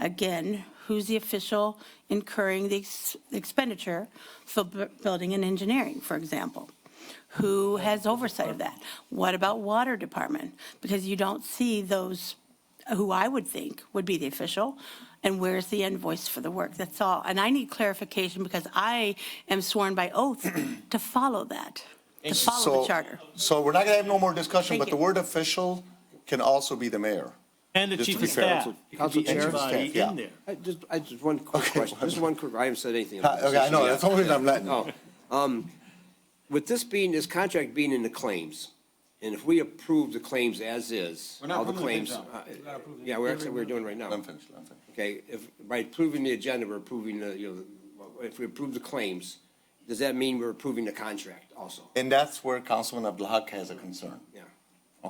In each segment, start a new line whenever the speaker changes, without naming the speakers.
Again, who's the official incurring the ex- expenditure for bu- building and engineering, for example? Who has oversight of that? What about water department? Because you don't see those, who I would think would be the official, and where's the invoice for the work? That's all. And I need clarification because I am sworn by oath to follow that, to follow
So-
the charter.
So we're not going to have no more discussion,
Thank
but the
you.
word official can also be the mayor.
And the
Just to
chief
be
of
fair,
staff.
Council-
It could
Council
be
Chair?
anybody
Staff,
in
yeah.
there.
I just, I just, one quick
Okay. Uh,
question, just one quick, I haven't said anything. about
Okay, I
this
know,
issue
that's the
yet.
only reason I'm letting.
Oh, um, with this being, this contract being in the claims, and if we approve the claims as is,
We're not
all the
approving
claims.
the things now.
uh,
We're not approving
Yeah, we're, actually- we're doing right now.
I'm finished, I'm finished.
Okay, if, by approving the agenda, we're approving the, you know, if we approve the claims, does that mean we're approving the contract also?
And that's where Councilman Abdalhak has a concern,
Yeah.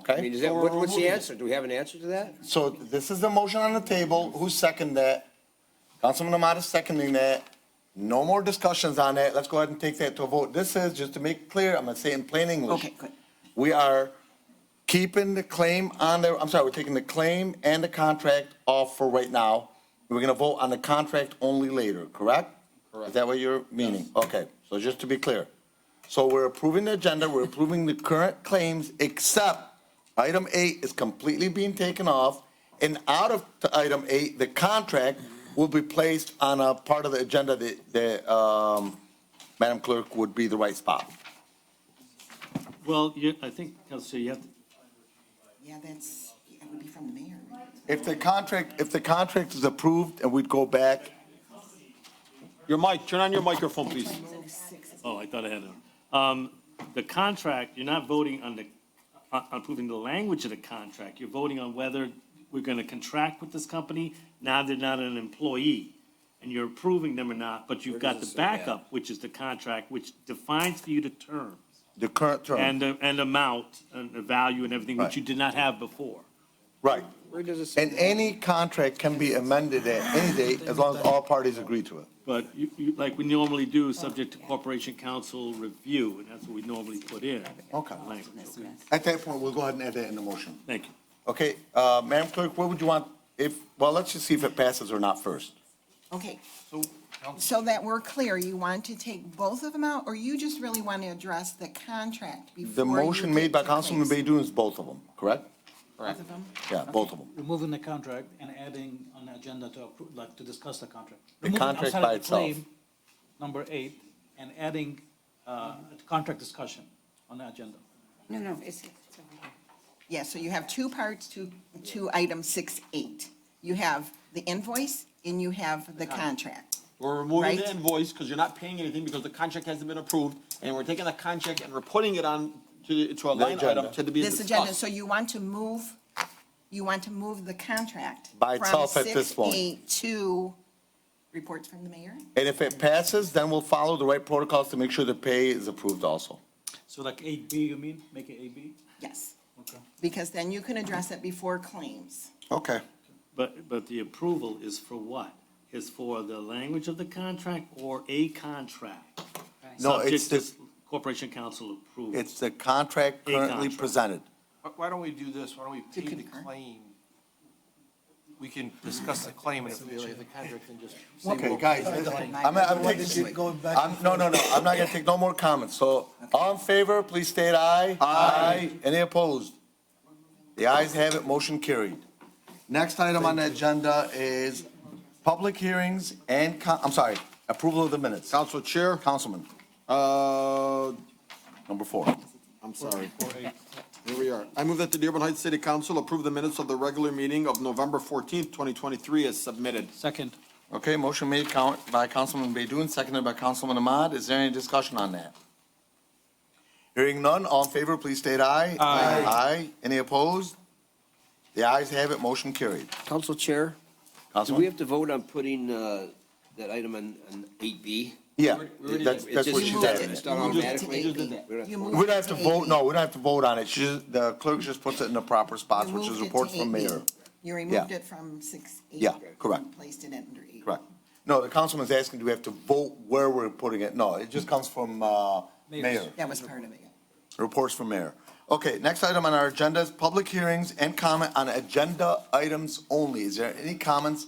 I mean, is
okay?
that, what- what's the answer? Do we have an answer to that?
So this is the motion on the table, who seconded that? Councilman Ahmad is seconding that. No more discussions on that, let's go ahead and take that to a vote. This is, just to make clear, I'm going to say in plain English.
Okay, good.
We are keeping the claim on there, I'm sorry, we're taking the claim and the contract off for right now. We're gonna vote on the contract only later, correct? Is that what you're meaning? Okay, so just to be clear. So we're approving the agenda, we're approving the current claims, except item eight is completely being taken off. And out of t- item eight, the contract will be placed on a part of the agenda that, that, um, Madam Clerk would be the right spot.
Well, you, I think, Council, you have to
Yeah, that's, it would be from the mayor.
If the contract, if the contract is approved and we'd go back,
Your mic, turn on your microphone, please.
Oh, I thought I had it. Um, the contract, you're not voting on the, on on approving the language of the contract. You're voting on whether we're gonna contract with this company. Now they're not an employee, and you're approving them or not, but you've got the backup, which is the contract, which defines for you the terms
the current term.
and, the- and amount and the value and everything,
Right.
which you did not have before.
Right.
Where does it say?
And any contract can be amended at any date as long as all parties agree to it.
But you, you, like we normally do, subject to corporation council review, and that's what we normally put in.
Okay.
Language, okay.
At that point, we'll go ahead and add that in the motion.
Thank you.
Okay, uh, Madam Clerk, what would you want if, well, let's just see if it passes or not first.
Okay. So that we're clear, you want to take both of them out, or you just really want to address the contract before?
The
you
motion
get
made by
to claims?
Councilman Baydun is both of them, correct?
Both of them?
Yeah, both of them.
removing the contract and adding an agenda to approve, like, to discuss the contract.
The
Removing
contract
outside
by
of the
itself.
claim, Number eight, and adding, uh, a contract discussion on the agenda.
No, no, it's,
Yeah, so you have two parts to, to item six, eight. You have the invoice and you have the contract.
We're removing the
Right.
invoice because you're not paying anything because the contract hasn't been approved. And we're taking the contract and we're putting it on to, to a line item
agenda.
to be
This agenda,
discussed.
so you want to move, you want to move the contract?
By
from
itself at this point.
6.8 To reports from the mayor?
And if it passes, then we'll follow the right protocols to make sure the pay is approved also.
So like eight B, you mean, make it eight B?
Yes.
Okay.
Because then you can address it before claims.
Okay.
But, but the approval is for what? Is for the language of the contract or a contract?
No, it's
Subject
the,
to Corporation council approval.
it's the contract
A
currently
contract.
presented.
Why- Why don't we do this? Why don't we pay the
concur.
claim? We can discuss the claim and if we have the contract, then just. say
Okay,
we'll-
guys, listen, I'm, I'm taking, I'm, no, no, no, I'm not gonna take no more comments, so, all in favor, please state aye. Aye. Any opposed? The ayes have it, motion carried. Next item on the agenda is public hearings and, co- I'm sorry, approval of the minutes.
Council Chair,
Councilman,
uh,
number four.
I'm sorry. Here we are. I move that the Dearborn Heights City Council approve the minutes of the regular meeting of November fourteenth, twenty twenty-three as submitted.
Second.
Okay, motion made count by Councilman Baydun, seconded by Councilman Ahmad. Is there any discussion on that? Hearing none, all in favor, please state aye. Aye. Aye. Any opposed? The ayes have it, motion carried.
Council Chair? Do we
Councilman?
have to vote on putting uh, that item on on 8B?
Yeah,
It
that's, that's
just-
what she
it's
said.
done automatically?
You moved it.
We don't have to
You
vote.
moved
We don't have to vote, no, we don't have to vote on it. She, just- the clerk just puts it in the proper spots,
You
which
moved
is
it to
reports from
8B.
mayor.
You removed
Yeah.
it from six, eight.
Yeah, correct.
and Placed it under eight.
Correct. No, the councilman's asking, do we have to vote where we're putting it? No, it just comes from, uh, mayor.
That was part of it.
Reports from mayor. Okay, next item on our agenda is public hearings and comment on agenda items only. Is there any comments